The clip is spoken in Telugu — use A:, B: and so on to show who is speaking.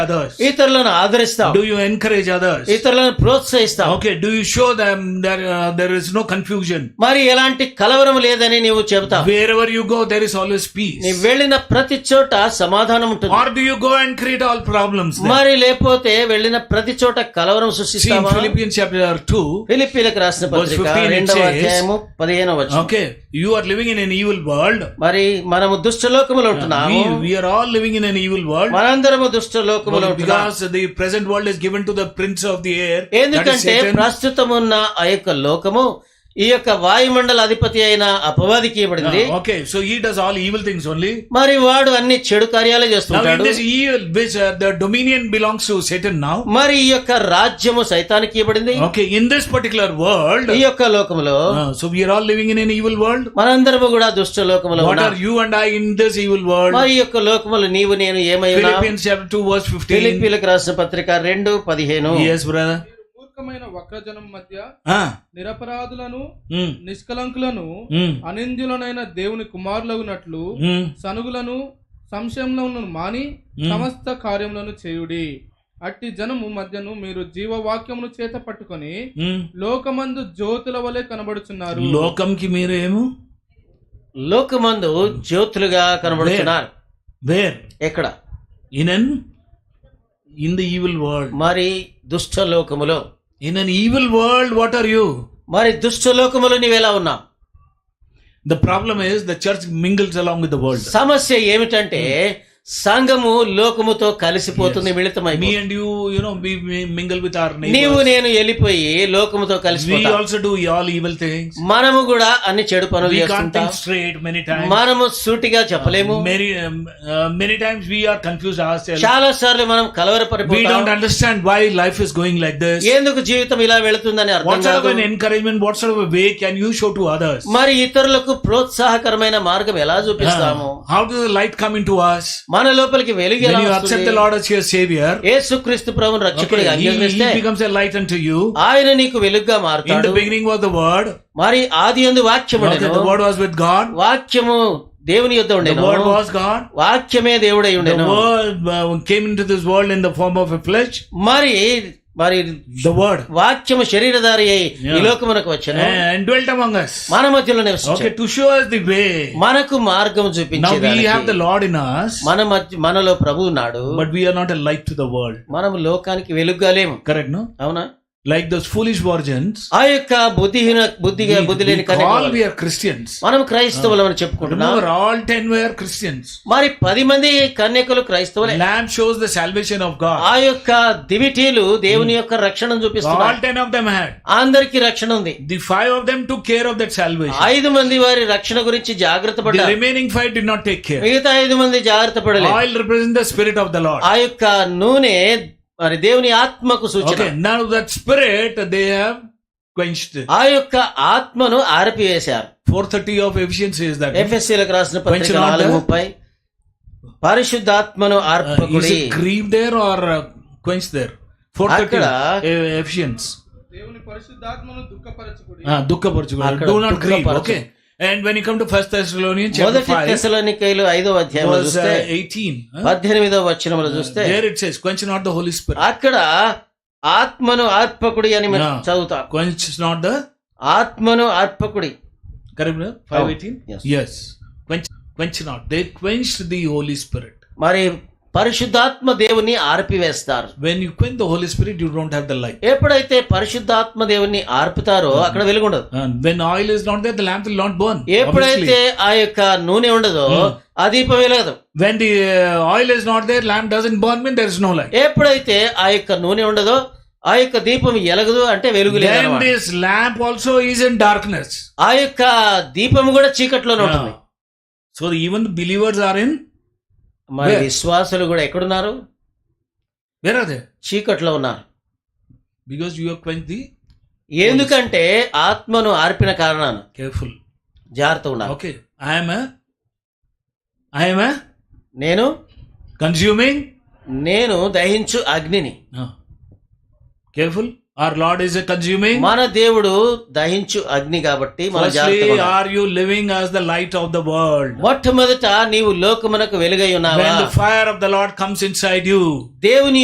A: others?
B: ఇతరులను ఆదరిస్తాం
A: Do you encourage others?
B: ఇతరులను ప్రోత్సహిస్తాం
A: Okay, do you show them that uh, there is no confusion?
B: మరి ఎలాంటి కలవరం లేదని నీవు చెబుతావు
A: Wherever you go, there is always peace.
B: నీ వెళ్ళిన ప్రతి చోట సమాధానం ఉంటుంది
A: Or do you go and create all problems? Then?
B: మరి లేకపోతే వెళ్ళిన ప్రతి చోట కలవరం
A: See, in
B: సృష్టిస్తావా
A: Philippians chapter 2,
B: ఫిలిప్పీలకు రాసిన
A: Verse
B: పత్రిక
A: 15 it
B: రెండవ
A: says,
B: అధ్యాయము పదిహేనవ వచనం
A: okay, you are living in an evil world.
B: మరి మనము దుష్టలోకములో ఉంటున్నాము
A: "Oh, We, we are all living in an evil world.
B: మనందరము దుష్టలోకములో
A: Well,
B: ఉంటున్నాము
A: Because the present world is given to the prince of the air. that is
B: ఎందుకంటే
A: Satan.
B: ప్రస్తుతమున్న ఆ యొక్క లోకము ఈ యొక్క వాయుమండల అధిపతి అయిన అపవాదికి ఇవ్వబడింది
A: Ah, okay, so he does all evil things only.
B: మరి వాడు అన్ని చెడు కార్యాలు
A: Now, in
B: చేస్తుంటాడు
A: this evil, which uh, the dominion belongs to Satan now.
B: మరి ఈ యొక్క రాజ్యము సైతానికి ఇవ్వబడింది
A: Okay, in this particular world,
B: ఈ యొక్క లోకములో
A: ah, so we are all living in an evil world.
B: మనందరము కూడా దుష్ట లోకములో
A: What
B: ఉన్నాం
A: are you and I in this evil world?
B: మరి ఈ యొక్క లోకములు నీవు నేను ఏమై ఉన్నా
A: Philippians chapter 2, verse 15.
B: ఫిలిప్పీలకు రాసిన పత్రిక రెండు పదిహేను
A: Yes, brother.
C: మీరు మూర్ఖమైన వక్రజనం మధ్య
A: Ah,
C: నిరపరాధులను
A: mm,
C: నిష్కలంకులను
A: mm,
C: అనింద్యులనైన దేవుని కుమారులగునట్లు
A: mm.
C: సనుగులను సంశయంలను మాని సమస్త కార్యములను చేయుడి అట్టి జనము మధ్యను మీరు జీవవాక్యమును చేత పట్టుకొని
A: Mm.
C: లోకమందు జ్యోతుల వలె కనబడుచున్నారు
A: లోకంకి మీరేమో
B: లోకమందు జ్యోతులుగా కనబడుతున్నారు
A: వేర్
B: ఎక్కడ
A: in an in the evil world
B: మరి దుష్ట లోకములో
A: in an evil world what are you
B: మరి దుష్ట లోకములో నీవెలా ఉన్నావు
A: the problem is the church mingles along with the world
B: సమస్య ఏమిటంటే సంఘము లోకముతో కలిసిపోతుంది మిళితమై
A: me and you you know we mingle with our
B: నీవు నేను వెళ్ళిపోయి లోకముతో
A: వి
B: కలిసిపోతాం
A: also do all evil things
B: మనము కూడా అన్ని చెడు పనులు
A: వి కాంట్
B: చేస్తుంటాం
A: థింక్ స్ట్రైట్ మెనీ టైమ్స్
B: మనము సూటిగా చెప్పలేము
A: many many times we are confuse our self
B: చాలా సార్లు మనం
A: వి
B: కలవరపడిపోతాం
A: don't understand why life is going like this
B: ఎందుకు జీవితం ఇలా వెళుతుందని అర్థం
A: వాట్ సార్ ఆఫ్
B: కాదు
A: an encouragement what sort of way can you show to others
B: మరి ఇతరులకు ప్రోత్సాహకరమైన మార్గం ఎలా చూపిస్తాము
A: how do light come into us
B: మన లోపలికి వెలుగు ఎలా
A: Ah. when you accept
B: వస్తుంది?
A: the Lord as your Savior,
B: యేసుక్రీస్తు ప్రభుని
A: okay,
B: రక్షకుడిగా
A: he,
B: అంగీకరిస్తే
A: he becomes a light unto you.
B: ఆయన నీకు వెలుగుగా
A: In the
B: మారుతాడు
A: beginning was the Word.
B: మరి ఆది యందు వాక్యము
A: Okay,
B: ఉండెను
A: the Word was with God.
B: వాక్యము దేవుని యొద్ద
A: The
B: ఉండెను
A: Word was God.
B: వాక్యమే దేవుడై
A: The
B: ఉండెను
A: Word uh, came into this world in the form of a flesh.
B: మరి మరి
A: The Word.
B: వాక్యము శరీరధారి అయి
A: Yeah.
B: ఈ లోకమునకు వచ్చెను
A: And dwelt among us.
B: మన మధ్యలో
A: Okay,
B: నివసించాడు
A: to show us the way.
B: మనకు మార్గం
A: Now we have the
B: చూపించేది
A: Lord in us,
B: మన మధ్య మనలో ప్రభు ఉన్నాడు
A: but we are not a light to the world.
B: మనం లోకానికి వెలుగుగా లేము
A: Correct, no?
B: అవునా
A: Like those foolish virgins.
B: ఆ యొక్క బుద్ధిహీన బుద్ధిగా బుద్ధి
A: We
B: లేని కన్యక
A: call
B: వాళ్ళు.
A: we are Christians.
B: మనం క్రైస్తవులం అని చెప్పుకుంటున్నాం
A: Remember, all ten were Christians.
B: మరి పది మంది కన్యకలు క్రైస్తవులే
A: Lamb shows the salvation of God.
B: ఆ యొక్క దివిటీలు దేవుని
A: Hmm.
B: యొక్క రక్షణ
A: All
B: చూపిస్తున్నారు
A: ten of them had.
B: అందరికి రక్షణ ఉంది
A: The five of them took care of that salvation.
B: ఐదు మంది వారి రక్షణ గురించి జాగ్రత్త
A: The
B: పడ్డారు
A: remaining five did not take care.
B: మిగతా ఐదు మంది జాగ్రత్త పడలేదు
A: Oil represents the spirit of the Lord.
B: ఆ యొక్క నూనె మరి దేవుని ఆత్మకు సూచన
A: Okay, now that spirit they have quenched.
B: ఆ యొక్క ఆత్మను ఆరపివేశారు
A: 430 of Ephesians says that. no?
B: ఎఫ్ఎస్సీలకు రాసిన పత్రిక
A: కొంచెం
B: నాలుగు
A: ఉంటే?
B: ముప్పై పరిశుద్ధాత్మను
A: Uh, is
B: ఆర్పకుడి
A: it grieved there or uh, quenched there? 430
B: అక్కడ-
A: uh, Ephesians.
C: దేవుని పరిశుద్ధాత్మను దుఃఖపరచుకుడి
A: Uh, దుఃఖపరచుకోవాలి.
B: అక్కడ
A: Do not grieve.
B: దుఃఖపరచు.
A: Okay. And when you come to First Thessalonians chapter
B: మొదటి
A: 5,
B: తెసలోనికైలు ఐదో అధ్యాయంలో
A: verse uh,
B: చూస్తే
A: 18. huh?
B: పద్దెనిమిదవ వచనంలో చూస్తే Ah.
A: There it says, quench not the Holy Spirit.
B: అక్కడ ఆత్మను ఆర్పకుడి అని మనం
A: Yeah.
B: చదువుతాం
A: Quench not the
B: ఆత్మను ఆర్పకుడి
A: Correct, brother?
B: Ah.
A: 518?
B: Yes.
A: Yes. Quench, quench not. They quenched the Holy Spirit.
B: మరి పరిశుద్ధాత్మ దేవుని ఆర్పివేస్తారు
A: When you quench the Holy Spirit, you don't have the light.
B: ఎప్పుడైతే పరిశుద్ధాత్మ దేవుని ఆర్పుతారో అక్కడ వెలుగుండదు
A: And when oil is not there, the lamp will not burn.
B: ఎప్పుడైతే
A: Obviously. Hmm.
B: ఆ యొక్క నూనె ఉండదో ఆ దీపం వెలగదు
A: When the uh, oil is not there, lamp doesn't burn, mean there is no light.
B: ఎప్పుడైతే ఆ యొక్క నూనె ఉండదో ఆ యొక్క దీపం ఎలగదు అంటే వెలుగు లేదు
A: Then
B: అన్నమాట.
A: this lamp also is in darkness.
B: ఆ యొక్క దీపం కూడా చీకట్లోనే ఉంటుంది
A: Yeah. So even the believers are in,
B: మరి
A: Where?
B: విశ్వాసులు కూడా ఎక్కడున్నారు
A: where are they?
B: చీకట్లో ఉన్నారు
A: Because you have quenched the
B: ఎందుకంటే ఆత్మను ఆర్పిన కారణాన
A: careful.
B: జాగ్రత్త ఉన్నారు
A: Okay. I am a, I am a
B: నేను
A: consuming.
B: నేను దహించు అగ్నిని
A: No. Careful. Our Lord is a consuming.
B: మన దేవుడు దహించు అగ్ని కాబట్టి మన
A: Firstly,
B: జాగ్రత్త
A: are you living as the light of the world?
B: మొట్టమొదట నీవు లోకమునకు వెలుగై ఉన్నావా
A: When the fire of the Lord comes inside you,
B: దేవుని